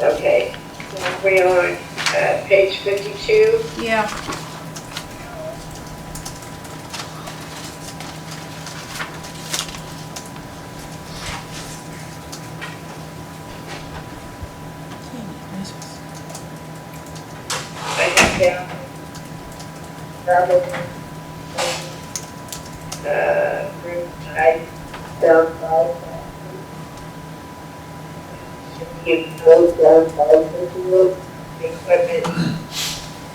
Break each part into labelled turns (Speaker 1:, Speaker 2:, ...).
Speaker 1: Okay, we're on uh, page 52.
Speaker 2: Yeah.
Speaker 1: I have down. Robert. Uh, group, I down five. You both down five, equipment.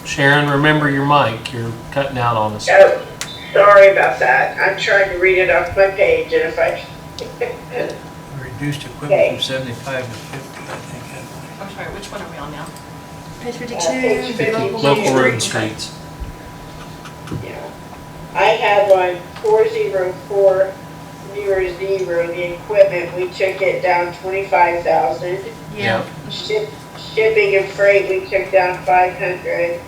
Speaker 3: Sharon, remember your mic. You're cutting out on us.
Speaker 1: Oh, sorry about that. I'm trying to read it off my page and if I,
Speaker 4: Reduced equipment
Speaker 1: Okay.
Speaker 4: from 75 to 50, I think.
Speaker 5: I'm sorry, which one are we on now?
Speaker 2: Page
Speaker 1: page
Speaker 2: fifty-two,
Speaker 1: 50,
Speaker 3: Local road and streets.
Speaker 1: Yeah. I have on four zero four zero zero, the equipment, we took it down twenty-five thousand.
Speaker 2: yeah.
Speaker 1: Ship, shipping and freight, we took down five hundred.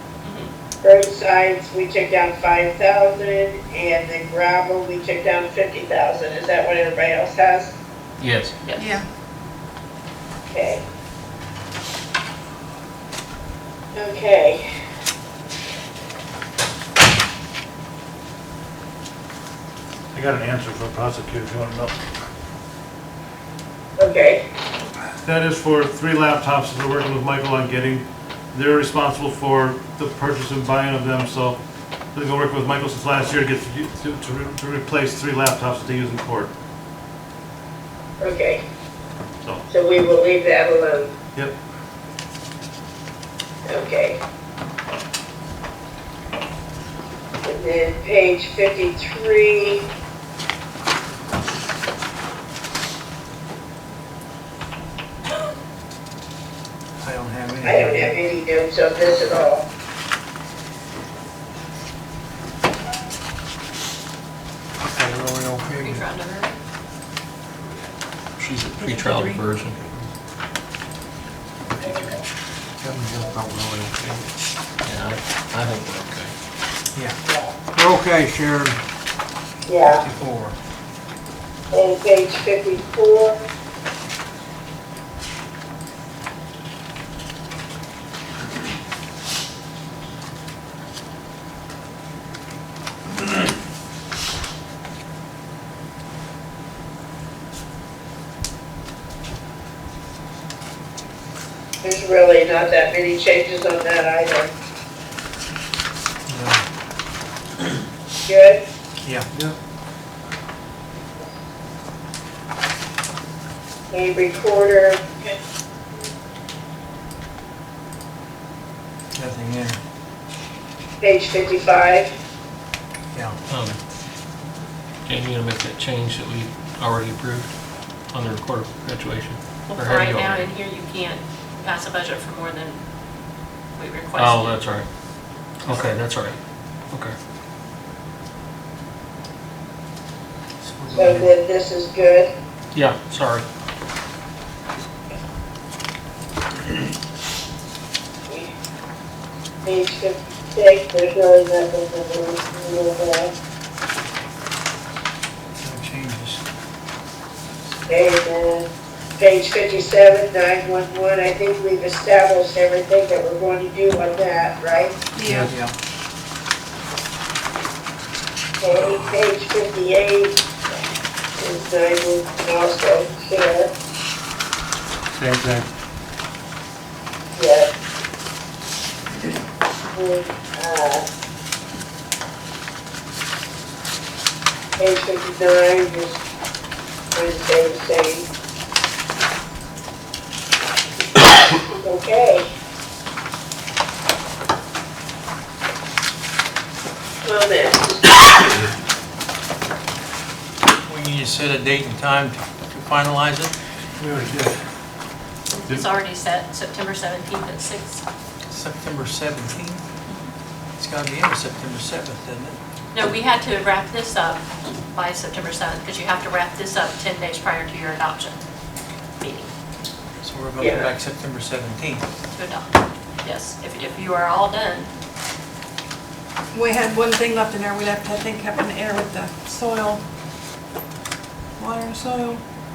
Speaker 1: Roadsides, we took down five thousand, and the gravel, we took down fifty thousand, is that what everybody else has?
Speaker 3: Yes.
Speaker 5: Yes.
Speaker 2: Yeah.
Speaker 1: Okay. Okay.
Speaker 6: I got an answer for prosecutors, you wanna know?
Speaker 1: Okay.
Speaker 6: That is for three laptops that we're working with Michael on getting. They're responsible for the purchase and buying of them, so they've been working with Michael since last year to get, to, to re- to replace three laptops that they use in court,
Speaker 1: Okay,
Speaker 6: so.
Speaker 1: so we will leave that alone.
Speaker 6: Yep.
Speaker 1: Okay. And then page fifty-three.
Speaker 4: I don't have any.
Speaker 1: I don't have any notes on this at all.
Speaker 4: Okay, well, we don't
Speaker 5: Are you
Speaker 4: pay them.
Speaker 5: trying to hurry?
Speaker 3: She's a pre-trial diversion.
Speaker 4: Tell them just don't know we don't pay them.
Speaker 3: Yeah, I I think we're okay.
Speaker 4: We're okay, Sharon,
Speaker 1: Yeah,
Speaker 4: 54.
Speaker 1: and page fifty-four. There's really not that many changes on that either.
Speaker 4: Yeah.
Speaker 1: Good?
Speaker 4: Uh, Yeah.
Speaker 1: And recorder,
Speaker 4: Nothing in,
Speaker 1: page fifty-five.
Speaker 4: yeah.
Speaker 3: Um, Jamie, Um, you gonna make that change that we already approved on the record of graduation?
Speaker 5: Well,
Speaker 3: Or
Speaker 5: for
Speaker 3: have
Speaker 5: right
Speaker 3: you
Speaker 5: now,
Speaker 3: already?
Speaker 5: in here, you can't pass a budget for more than we requested.
Speaker 3: Oh, that's all right. Okay, that's all right. Okay.
Speaker 1: So then this is good.
Speaker 3: Yeah, sorry.
Speaker 1: Page fifty-six, there's really nothing to really, really add.
Speaker 4: No changes.
Speaker 1: And then page fifty-seven, nine-one-one, I think we've established everything that we're going to do on that, right?
Speaker 2: Yeah.
Speaker 4: Yeah.
Speaker 1: Okay, page fifty-eight is nine-one-one also, here,
Speaker 6: Same thing.
Speaker 1: yes. And, uh, page fifty-nine is Wednesday, the same. Okay. Comments?
Speaker 4: We need to set a date and time to to finalize it.
Speaker 6: We already did.
Speaker 5: It's already set, September 17th at 6.
Speaker 4: September 17th. It's gotta be in September 7th, isn't it?
Speaker 5: No, we had to wrap this up by September 7th, because you have to wrap this up 10 days prior to your adoption meeting,
Speaker 4: So we're going
Speaker 1: Yeah.
Speaker 4: back September 17th.
Speaker 5: to adopt. Yes, if, if you are all done,
Speaker 2: We had one thing left in there, we left, I think, up in the air with the soil, water and soil.